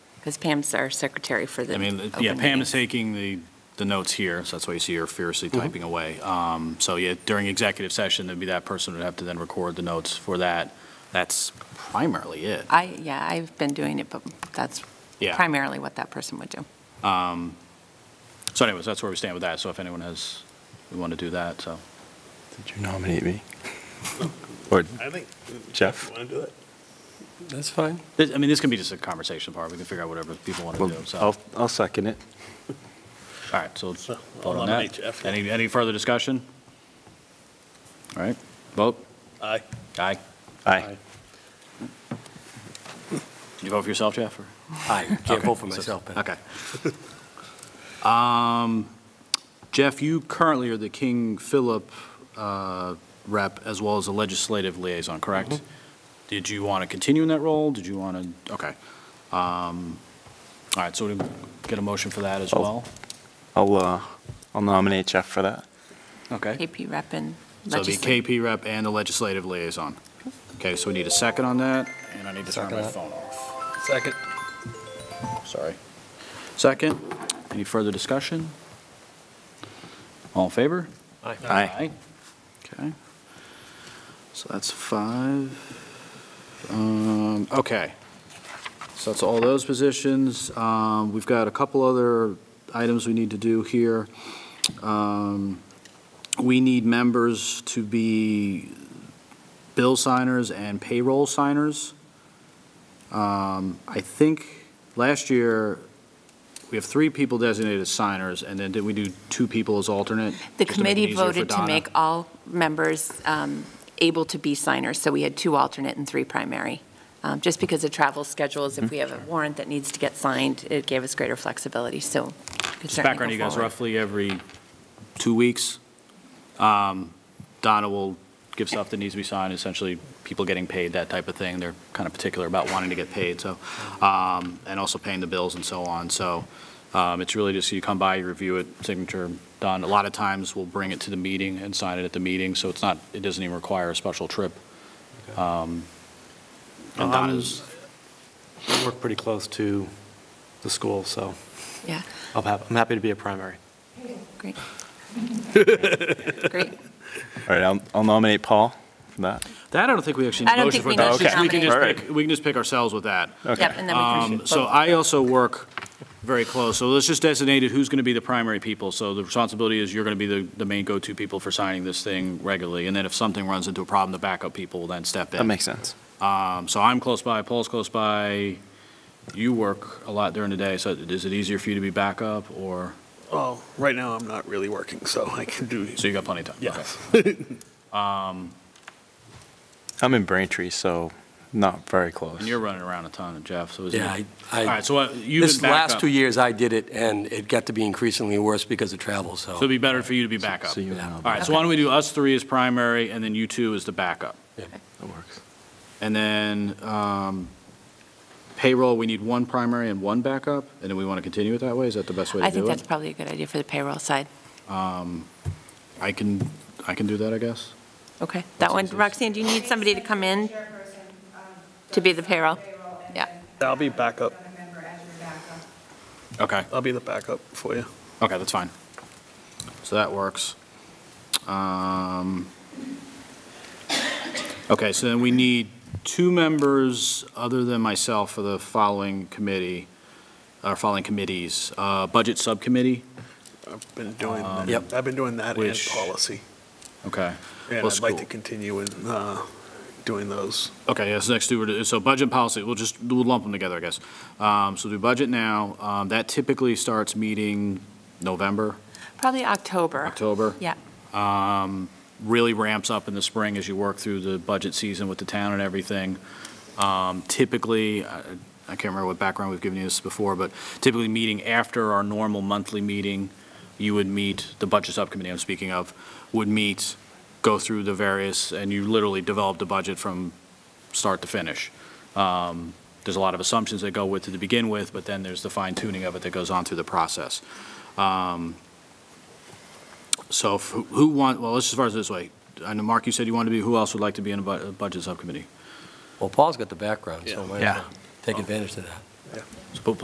Because Pam's our secretary for the. I mean, yeah, open Pam meetings. is taking the, the notes here, so that's why you see her furiously typing away. Um, So yeah, during executive session, it'd be that person would have to then record the notes for that. That's primarily it. I, yeah, I've been doing it, but that's Yeah. primarily what that person would do. So anyways, that's where we stand with that. So if anyone has, we want to do that, so. Did you nominate me? Or I think. Jeff? Want to do it? That's fine. This- I mean, this can be just a conversation part. We can figure out whatever people want to Well, do, so. I'll, I'll second it. All right, so So, I'll vote on nominate that. Jeff. Any, any further discussion? All right, vote. Aye. Aye. Aye. Did you vote for yourself, Jeff? or- I can't Okay, vote for so- myself, but Okay. Um, Jeff, you currently are the King Philip uh, rep as well as the legislative liaison, correct? Mm-hmm. Did you want to continue in that role? Did you want to, okay. Um, All right, so we get a motion for that as Oh. well? I'll, uh, I'll nominate Jeff for that. Okay. KP rep and So the legislative. KP rep and the legislative liaison. Okay, so we need a second on that, and I need to turn Second my that. phone off. second. Sorry. Second, any further discussion? All in favor? Aye. Okay. So that's five. Um, Okay. So that's all those positions. Um, We've got a couple other items we need to do here. Um, We need members to be bill signers and payroll signers. Um, I think last year, we have three people designated as signers, and then did we do two people as alternate? The just to make it committee easier for voted to Donna? make all members um, able to be signers, so we had two alternate and three primary. Um, Just because of travel schedules, Mm-hmm. if we have a warrant that needs to get signed, it gave us greater flexibility, so. we could Just certainly background, go you guys, forward. roughly every two weeks, um, Donna will give stuff that needs to be signed, essentially people getting paid, that type of thing. They're kind of particular about wanting to get paid, so, um, and also paying the bills and so on. So um, it's really just, you come by, you review it, signature done. A lot of times, we'll bring it to the meeting and sign it at the meeting, so it's not, it doesn't even require a special trip. Um, And Donna's, I work pretty close to the school, so Yeah, I'll have, I'm happy to be a primary. great. Great. All right, I'll, I'll nominate Paul for that. that I don't think we actually I need a don't think motion for. we that. need to Just- we can just nominate. pick- We can just pick ourselves with that. Yep, and then we Um, can. So I also work very close, so let's just designate who's going to be the primary people. So the responsibility is you're going to be the, the main go-to people for signing this thing regularly, and then if something runs into a problem, the backup people will then step in. That makes sense. Um, So I'm close by, Paul's close by, you work a lot during the day, so is it easier for you to be backup, or, Well, right now I'm not really working, so I can do. so you got plenty of time? Okay. Yes. I'm in Braintree, so not very close. And you're running around a ton, Jeff, so is it? Yeah, I- All I, right, so uh, you've been this last backup, two so years I did it, and it got to be increasingly worse because of travel, it'd so. be better for you to be backup. So you and Yeah. I'll, All right, so why don't we do us three as primary, and then you two as the backup? that works. And then um, payroll, we need one primary and one backup, and then we want to continue it that way? Is that the best way I to think do that's it? probably a good idea for the payroll side. I can, I can do that, I guess? Okay, that one, easy. Roxanne, do you need somebody to come in to be the payroll? Yeah. I'll be backup. Okay, I'll be the backup for you. okay, that's fine. So that works. Um, Okay, so then we need two members other than myself for the following committee, or following committees. Uh, Budget Subcommittee, I've been doing, Yep. I've been doing that and Um, Which- policy. okay. And Well, I'd like school. to continue in uh, doing those. Okay, yes, next two, were- so budget and policy, we'll just, we'll lump them together, I guess. Um, So do budget now, Um, that typically starts meeting November, Probably October. October. Yeah. Um, Really ramps up in the spring as you work through the budget season with the town and everything. Um, Typically, I I can't remember what background we've given you this before, but typically meeting after our normal monthly meeting, you would meet, the budget subcommittee I'm speaking of, would meet, go through the various, and you literally develop the budget from start to finish. Um, There's a lot of assumptions that go with it to begin with, but then there's the fine tuning of it that goes on through the process. Um, So if- who- who want, well, let's just start this way. I know, Mark, you said you wanted to be, who else would like to be in a bu- a budget subcommittee? Well, Paul's got the background, so Yeah. might as Yeah. well take advantage of that. So, but